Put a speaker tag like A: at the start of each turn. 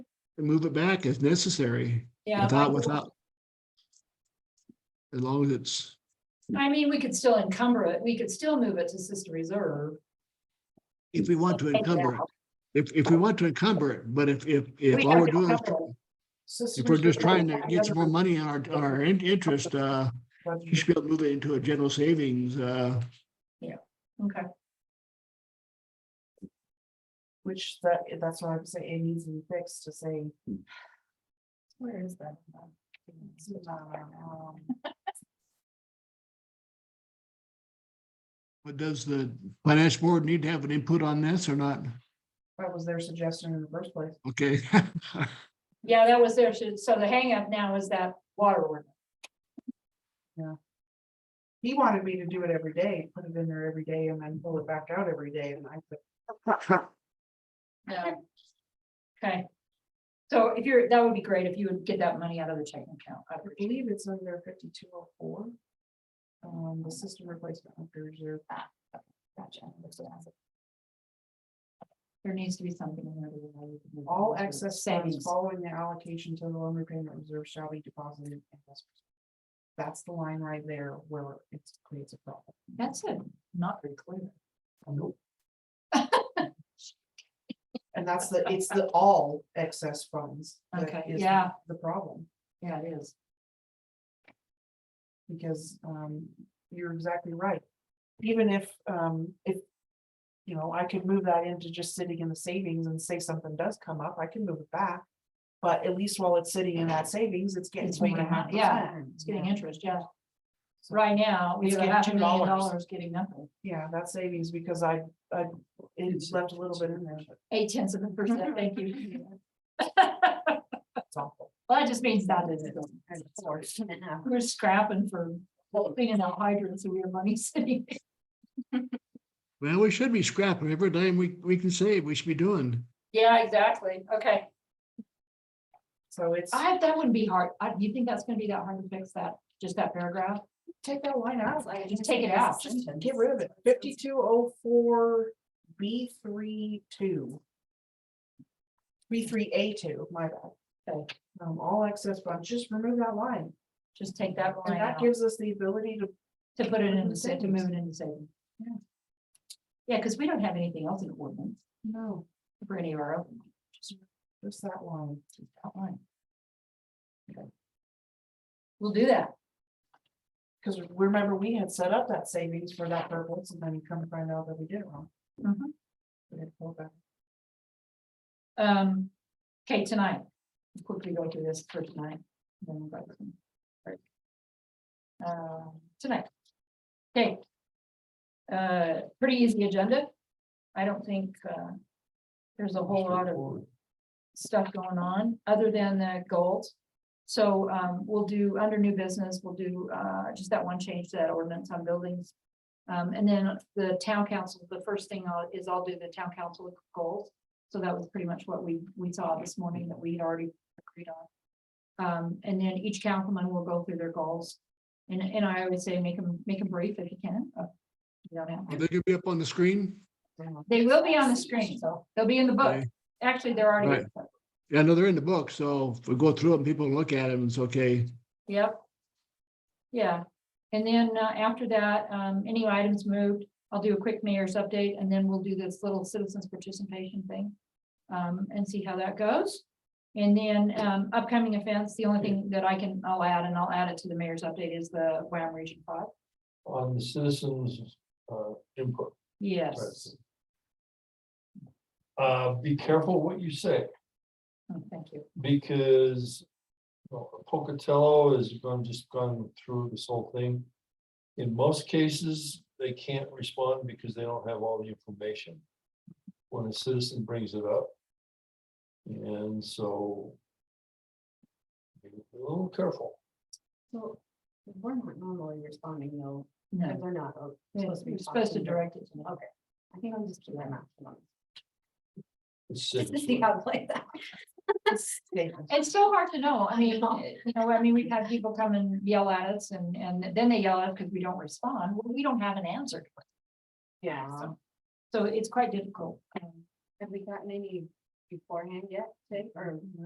A: and move it back if necessary,
B: Yeah. I-
A: without, without. As long as it's,
B: I mean, we could still encumber it. We could still move it to sister reserve.
A: if we want to
B: Take it
A: encumber it,
B: out.
A: if, if we want to encumber it, but if, if, if
B: We
A: all
B: have
A: we're
B: to
A: doing is.
B: encumber it. Sister
A: If we're just
B: reserve
A: trying to
B: doesn't have
A: get some more
B: government
A: money on our, on our in- interest, uh, you
B: revenue.
A: should be able to move it into a general savings, uh,
B: Okay,
C: Which that, that's why I'm saying it needs to be fixed to say. Where is that? It's not around, um,
A: but does the finance board need to have an input on this or not?
C: That was their suggestion in the first place.
A: Okay.
B: yeah, that was there. So so the hangup now is that water ordinance.
C: He wanted me to do it every day, put it in there every day and then pull it back out every day and I said.
B: Yeah. Okay. So if you're, that would be great if you would get that money out of the checking account. I'd
C: I
B: appreciate
C: believe it's under fifty-two oh four. Um, the system replacement under reserve. Ah,
B: it. Gotcha. Looks like that's it. There needs to be something in there. to allow you to move
C: All
B: it to
C: excess funds
B: Savings.
C: following the allocation to the loan repayment reserve shall be deposited. in trust. That's the line right there where it creates a problem.
B: That's it. Not very clear.
C: And that's the, it's the all excess funds. that
B: Okay,
C: is
B: yeah.
C: The problem,
B: Yeah, it is.
C: because um, you're exactly right. Even if um, if. You know, I could move that into just sitting in the savings and say something does come up, I can move it back. But at least while it's sitting in that savings, it's getting
B: It's
C: two and a
B: making
C: half
B: mon- yeah,
C: percent.
B: It's getting
C: Yeah.
B: interest, yeah. Right now, we
C: It's
B: have a
C: getting
B: half a million
C: $2.
B: dollars getting nothing.
C: Yeah, that savings, because I, I, it left a little bit in there, but
B: Eight tenths of a percent, thank you.
C: it's awful.
B: Well, that just means that is,
C: It's
B: we're scrapping for cleaning out hydrants, so we have money sitting.
A: Well, we should be scrapping every dime we, we can save, we should be doing.
B: Yeah, exactly. Okay.
C: So it's.
B: I, that wouldn't be hard. I, you think that's gonna be that hard to fix that, just that paragraph? Take that line out. Just take it out.
C: Just Get rid of it. Fifty-two oh four B three two. B three A two, my bad.
B: Okay.
C: Um, all excess funds, just remove that line.
B: Just take that
C: And
B: line
C: that
B: out
C: gives us the ability to,
B: to put it in the, sa- to move it in the savings. Yeah. Yeah, because we don't have anything else in ordinance
C: no,
B: for any of our open. ones, just
C: just that line.
B: that line. Okay. We'll do that.
C: Because remember, we had set up that savings for that purpose and then you come to find out that we did it wrong.
B: Mhm.
C: We had to pull it back.
B: Um, okay, tonight, quickly go through this for tonight. then we'll go to some- right. Uh, tonight. Okay. Uh, pretty easy agenda. I don't think, uh, there's a whole lot of stuff going on, other than the goals. So, um, we'll do, under new business, we'll do, uh, just that one change to that ordinance on buildings. Um, and then the town council, the first thing I'll- is I'll do the town council goals. So that was pretty much what we, we saw this morning that we had already agreed on. Um, and then each councilman will go through their goals. And, and I always say, make them, make them brief if you can. uh, You don't have,
A: Are
B: to.
A: they gonna be up on the screen?
C: Damn.
B: they will be on the screen, so they'll be in the book.
A: Okay.
B: Actually, they're already. in the book.
A: Yeah, no, they're in the book, so if we go through them, people look at them, it's okay.
B: Yep. Yeah, and then uh, after that, um, any items moved, I'll do a quick mayor's update and then we'll do this little citizens participation thing. Um, and see how that goes. And then, um, upcoming events, the only thing that I can, I'll add, and I'll add it to the mayor's update is the Wham Region Five.
D: on the citizens' uh, input.
B: Yes,
D: Uh, Be careful what you say,
B: Oh, thank you.
D: because you know, Pocatello has gone, just gone through this whole thing. In most cases, they can't respond because they don't have all the information when a citizen brings it up. And so be a little careful.
C: So we're not normally responding though,
B: No,
C: they're not uh,
B: you're supposed to direct it to me.
C: I think I'm just doing that math.
D: It's
B: Just to
D: citizens.
B: see how it plays out.
C: Statement.
B: It's so hard to know. I mean, you know, I mean, we've had people come and yell at us and, and then they yell at us because we don't respond. Well, we don't have an answer.
C: Yeah.
B: So- So it's quite difficult. Um,
C: Have we gotten any beforehand yet, Tig, or?